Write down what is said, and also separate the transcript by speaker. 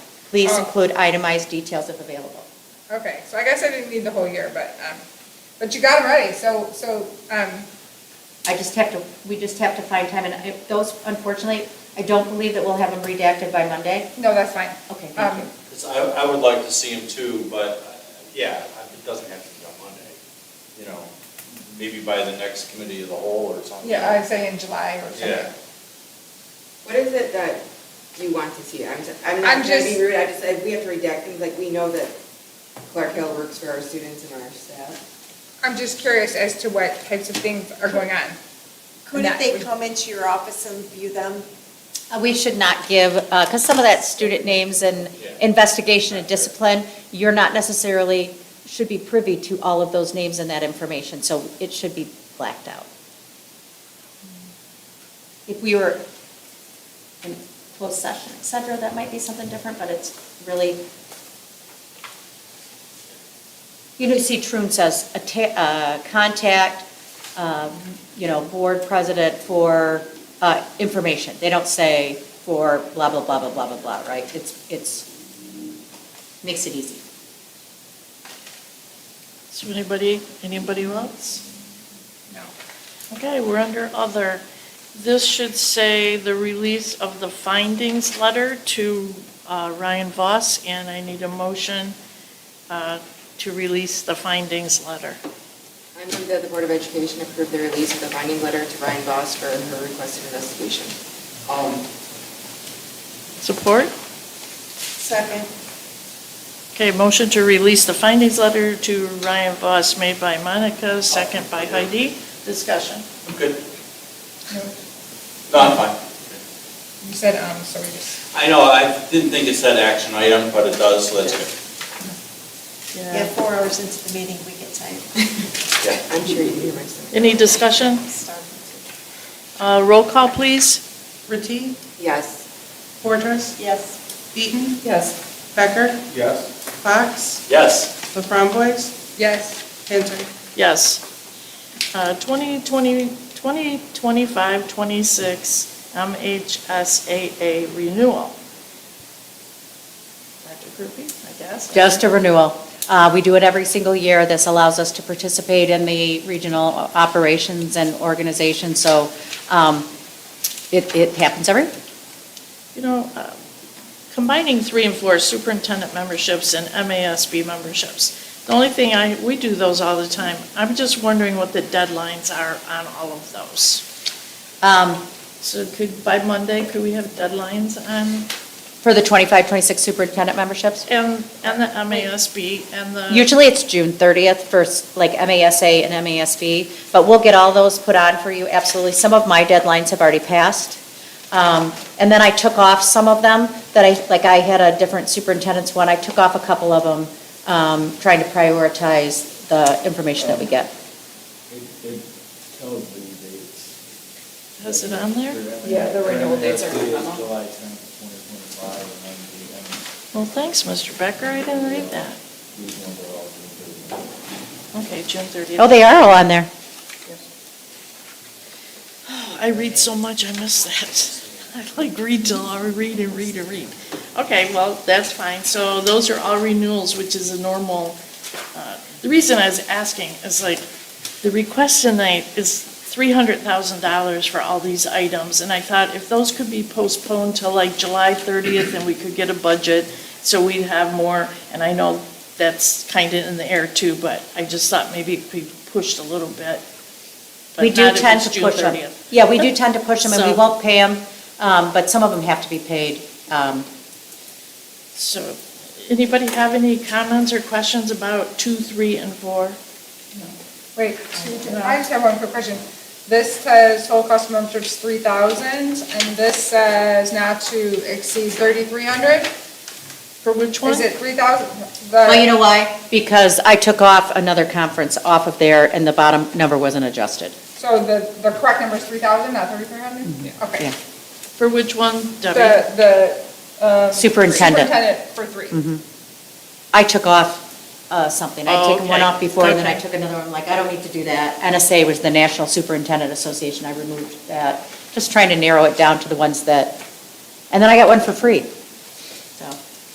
Speaker 1: Please
Speaker 2: Oh.
Speaker 1: include itemized details if available.
Speaker 2: Okay, so I guess I didn't need the whole year, but, um, but you got them ready, so, so, um,
Speaker 1: I just have to, we just have to find time, and I- those, unfortunately, I don't believe that we'll have them redacted by Monday.
Speaker 2: no, that's fine.
Speaker 1: Okay, thank
Speaker 2: Um,
Speaker 1: you.
Speaker 3: 'Cause I, I would like to see him too, but, uh, yeah, it doesn't have to be on Monday, you know, maybe by the next committee of the whole or something.
Speaker 2: Yeah, I'd say in July or
Speaker 3: Yeah.
Speaker 2: something.
Speaker 4: What is it that you want to see? I'm, s- I'm
Speaker 2: I'm
Speaker 4: not trying to
Speaker 2: just-
Speaker 4: be rude, I just, I- we have to redact things, like, we know that Clark Hill works for our students and our staff.
Speaker 2: I'm just curious as to what types of things are going on.
Speaker 5: Couldn't
Speaker 2: Not-
Speaker 5: they come into your office and view them?
Speaker 1: Uh, We should not give, because some of that student names and
Speaker 3: Yeah.
Speaker 1: investigation and discipline, you're not necessarily, should be privy to all of those names and that information, so it should be blacked out. If we were in closed session, et cetera, that might be something different, but it's really, you know, see, Trune says, atta- uh, contact, um, you know, board president for uh, information. They don't say for blah, blah, blah, blah, blah, blah, blah, right? It's, it's, makes it easy.
Speaker 6: So anybody, anybody else?
Speaker 2: No.
Speaker 6: Okay, we're under other. This should say the release of the findings letter to uh, Ryan Voss, and I need a motion uh, to release the findings letter.
Speaker 4: I move that the Board of Education approve the release of the finding letter to Ryan Voss for her requested investigation. Um,
Speaker 6: Support?
Speaker 5: Second.
Speaker 6: Okay, motion to release the findings letter to Ryan Voss made by Monica, second by Heidi. Discussion.
Speaker 3: I'm good.
Speaker 2: No.
Speaker 3: No, I'm fine.
Speaker 2: You said, um, so we just,
Speaker 3: I know, I didn't think it said action item, but it does, so that's good.
Speaker 5: Yeah, four hours into the meeting, we get tired.
Speaker 3: Yeah.
Speaker 4: I'm sure you hear myself.
Speaker 6: Any discussion? Uh, Roll call, please.
Speaker 7: Reti,
Speaker 4: Yes,
Speaker 7: Portres,
Speaker 5: Yes.
Speaker 7: Eaton,
Speaker 2: yes,
Speaker 7: Becker,
Speaker 3: Yes.
Speaker 7: Fox,
Speaker 3: Yes,
Speaker 7: the Framboys,
Speaker 2: yes,
Speaker 7: Cantor.
Speaker 6: Yes. Uh, 2020 2025-26 MHSAA renewal. Dr. Groupie, I guess?
Speaker 1: Just a renewal. Uh, We do it every single year. This allows us to participate in the regional operations and organization, so um, it, it happens every,
Speaker 6: You know, uh, combining three and four superintendent memberships and MASB memberships. The only thing I, we do those all the time. I'm just wondering what the deadlines are on all of those.
Speaker 1: um,
Speaker 6: So could, by Monday, could we have deadlines on,
Speaker 1: for the 25, 26 superintendent memberships.
Speaker 6: and, and the MASB and the?
Speaker 1: Usually it's June 30th for s- like MASA and MASB, but we'll get all those put on for you, absolutely. Some of my deadlines have already passed. Um, And then I took off some of them that I, like I had a different superintendent's one, I took off a couple of them, um, trying to prioritize the information that we get.
Speaker 8: It, it tells the dates.
Speaker 6: Has it on there?
Speaker 4: Yeah, the renewal dates are on
Speaker 8: MSD
Speaker 4: the
Speaker 8: is
Speaker 4: memo.
Speaker 8: July tenth, twenty twenty-five, and then the, and
Speaker 6: Well, thanks, Mr. Becker, I didn't read that.
Speaker 8: these ones are all June
Speaker 6: Okay,
Speaker 8: thirty.
Speaker 6: June 30th.
Speaker 1: Oh, they are all on there.
Speaker 6: Oh, I read so much, I miss that. I like read till I read and read and read. Okay, well, that's fine. So those are all renewals, which is a normal, uh, the reason I was asking is like, the request tonight is $300,000 for all these items. And I thought if those could be postponed till like July 30th and we could get a budget, so we'd have more, and I know that's kind of in the air too, but I just thought maybe it could be pushed a little bit. but
Speaker 1: We do
Speaker 6: not if
Speaker 1: tend
Speaker 6: it's
Speaker 1: to
Speaker 6: June
Speaker 1: push them.
Speaker 6: 30th.
Speaker 1: Yeah, we do tend to push them and we
Speaker 6: So-
Speaker 1: won't pay them, but some of them have to be paid. um,
Speaker 6: So, anybody have any comments or questions about two, three, and four?
Speaker 2: wait, I just have one quick question. This says total cost of membership is three thousand, and this says not to exceed thirty-three hundred?
Speaker 6: For which one?
Speaker 2: Is it three thousand?
Speaker 1: Well, you know why? Because I took off another conference off of there, and the bottom number wasn't adjusted.
Speaker 2: So the, the correct number is three thousand, not thirty-three hundred? Okay.
Speaker 1: Yeah.
Speaker 6: For which one, Debbie?
Speaker 2: The, the. um,
Speaker 1: Superintendent.
Speaker 2: Superintendent for three.
Speaker 1: I took off uh, something. I'd
Speaker 6: Oh,
Speaker 1: taken one
Speaker 6: okay.
Speaker 1: off before, and then I
Speaker 6: Okay.
Speaker 1: took another one, like, I don't need to do that. NSA was the National Superintendent Association, I removed that. Just trying to narrow it down to the ones that, and then I got one for free.